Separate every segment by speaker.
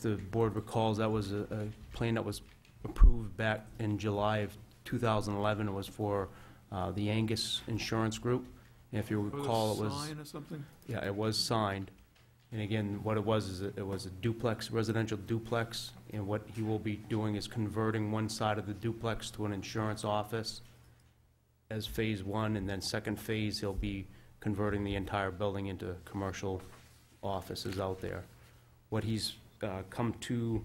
Speaker 1: the board recalls, that was a, a plan that was approved back in July of 2011. It was for uh, the Angus Insurance Group. And if you recall, it was,
Speaker 2: Sign or something?
Speaker 1: yeah, it was signed. And again, what it was, is it it was a duplex, residential duplex, and what he will be doing is converting one side of the duplex to an insurance office as Phase One, and then second phase, he'll be converting the entire building into commercial offices out there. What he's uh, come to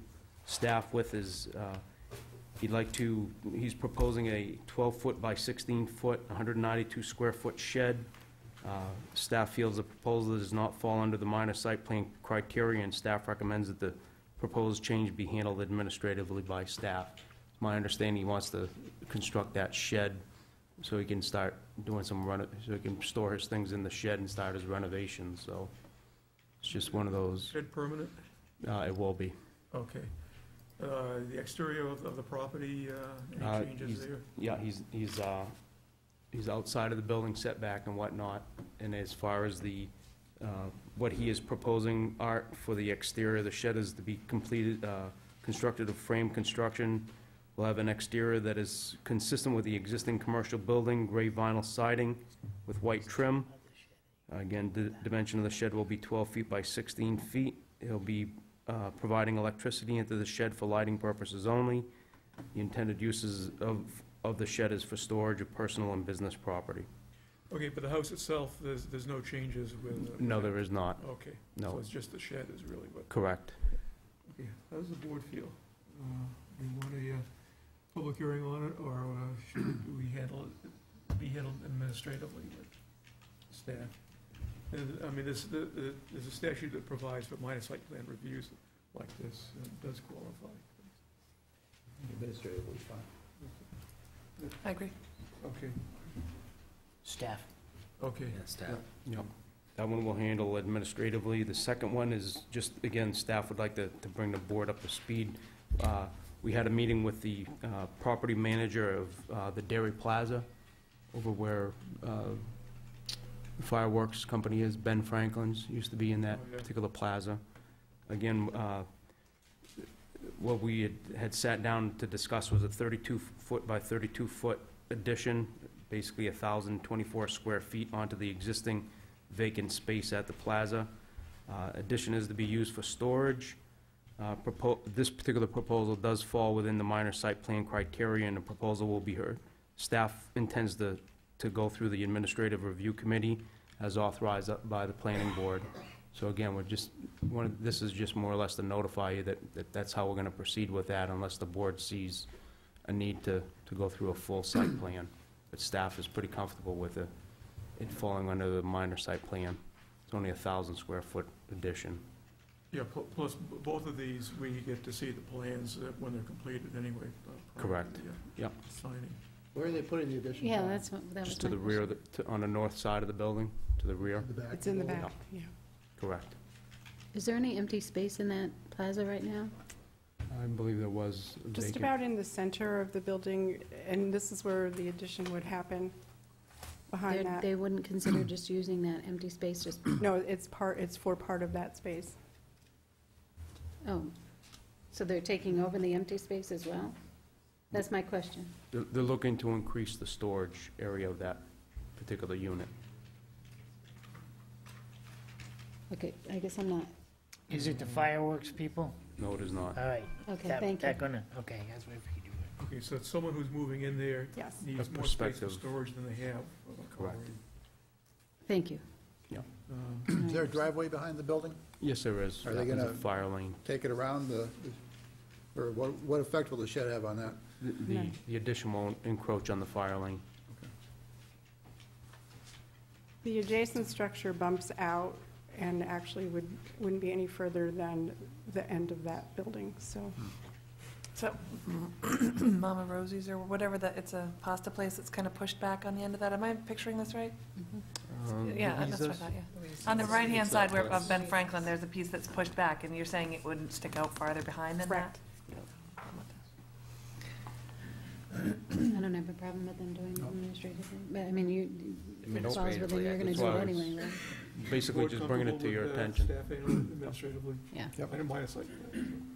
Speaker 1: staff with is, uh, he'd like to, he's proposing a 12-foot by 16-foot, 192-square-foot shed. Uh, Staff feels the proposal does not fall under the minor site plan criteria, and staff recommends that the proposed change be handled administratively by staff. It's My understanding, he wants to construct that shed so he can start doing some reno, so he can store his things in the shed and start his renovations, so it's just one of those,
Speaker 2: Shed permanent?
Speaker 1: uh, it will be.
Speaker 2: Okay. Uh, The exterior of of the property, uh,
Speaker 1: Uh,
Speaker 2: any changes
Speaker 1: he's-
Speaker 2: there?
Speaker 1: Yeah, he's, he's, uh, he's outside of the building setback and whatnot, and as far as the, uh, what he is proposing, Art, for the exterior, the shed is to be completed, uh, constructed of frame construction. We'll have an exterior that is consistent with the existing commercial building, gray vinyl siding with white trim. Again, the dimension of the shed will be 12 feet by 16 feet. He'll be uh, providing electricity into the shed for lighting purposes only. The intended uses of, of the shed is for storage of personal and business property.
Speaker 2: Okay, but the house itself, there's, there's no changes with? uh,
Speaker 1: No, there is not,
Speaker 2: Okay. So
Speaker 1: no,
Speaker 2: it's just the shed is really what?
Speaker 1: correct.
Speaker 2: Okay. How does the board feel? Uh, Do you want a uh, public hearing on it, or uh, should we handle it, be handled administratively with staff? And, Uh, I mean, this, the- the- there's a statute that provides for minor site plan reviews like this, and it does qualify.
Speaker 3: Administratively fine.
Speaker 4: I agree.
Speaker 2: Okay,
Speaker 4: Staff.
Speaker 2: okay.
Speaker 3: staff.
Speaker 1: Yep. That one we'll handle administratively. The second one is just, again, staff would like to, to bring the board up to speed. Uh, We had a meeting with the uh, property manager of uh, the Dairy Plaza over where uh, the fireworks company is, Ben Franklin's, used to be in that
Speaker 2: Oh, yeah.
Speaker 1: particular plaza. Again, uh, what we had- had sat down to discuss was a 32-foot by 32-foot addition, basically 1,024 square feet onto the existing vacant space at the plaza. Uh, Addition is to be used for storage. Uh, propo- This particular proposal does fall within the minor site plan criteria, and the proposal will be heard. Staff intends to, to go through the administrative review committee as authorized up by the planning board. So again, we're just, one, of- this is just more or less to notify you that, that that's how we're gonna proceed with that unless the board sees a need to, to go through a full site plan. But staff is pretty comfortable with it, it falling under the minor site plan. It's only a thousand square foot addition.
Speaker 2: Yeah, pl- plus, b- both of these, we get to see the plans uh, when they're completed anyway. uh, prior to
Speaker 1: Correct.
Speaker 2: the, uh,
Speaker 1: Yep.
Speaker 2: Signing.
Speaker 3: Where are they putting the addition?
Speaker 5: Yeah, that's, what- that was my
Speaker 1: Just to the rear, of the- to- on the north side of the building, to the rear,
Speaker 3: In the back?
Speaker 4: It's in the
Speaker 1: Yeah.
Speaker 4: back, yeah.
Speaker 1: correct.
Speaker 5: question. Is there any empty space in that plaza right now?
Speaker 1: I believe there was
Speaker 4: Just about in the center of the building, and this is where the addition would happen,
Speaker 5: They're-
Speaker 4: behind that.
Speaker 5: They wouldn't consider just using that empty space, just,
Speaker 4: No, it's part, it's for part of that space.
Speaker 5: oh, so they're taking over the empty space as well? That's my question.
Speaker 1: They're, they're looking to increase the storage area of that particular unit.
Speaker 5: Okay, I guess I'm not,
Speaker 6: Is it the fireworks people?
Speaker 1: No, it is not.
Speaker 6: All right.
Speaker 5: okay,
Speaker 6: that-
Speaker 5: thank you.
Speaker 6: That gonna, okay, that's what we do.
Speaker 2: Okay, so it's someone who's moving in there
Speaker 4: Yes.
Speaker 2: needs
Speaker 1: A
Speaker 2: more space for
Speaker 1: perspective.
Speaker 2: storage than they have. uh,
Speaker 1: Correct.
Speaker 2: already.
Speaker 5: Thank you.
Speaker 2: Um,
Speaker 3: Is there a driveway behind the building?
Speaker 1: Yes, there is.
Speaker 3: Are they
Speaker 1: There's a
Speaker 3: gonna-
Speaker 1: Fire lane.
Speaker 3: Take it around the, or what, what effect will the shed have on that?
Speaker 1: The- The,
Speaker 4: No.
Speaker 1: the addition won't encroach on the fire lane.
Speaker 4: The adjacent structure bumps out and actually would, wouldn't be any further than the end of that building, so.
Speaker 7: So Mama Rosie's or whatever that, it's a pasta place that's kind of pushed back on the end of that. Am I picturing this right?
Speaker 1: Um,
Speaker 7: Yeah,
Speaker 1: is
Speaker 7: that's what I
Speaker 1: this-
Speaker 7: thought, yeah. On the
Speaker 3: It's-
Speaker 7: right-hand
Speaker 3: it's
Speaker 7: side
Speaker 3: that
Speaker 7: where,
Speaker 3: place.
Speaker 7: of Ben Franklin, there's a piece that's pushed back, and you're saying it wouldn't stick out farther behind than that?
Speaker 4: Correct.
Speaker 5: I don't have a problem with them doing the administrative thing, but I mean, you, it falls within, you're gonna do it
Speaker 1: administratively, I think-
Speaker 5: anyway, right?
Speaker 1: Basically,
Speaker 2: Board
Speaker 1: just bringing it to
Speaker 2: comfortable
Speaker 1: your
Speaker 2: with, uh,
Speaker 1: attention.
Speaker 2: Staffing administratively.
Speaker 5: Yeah.
Speaker 2: I didn't mind a site plan.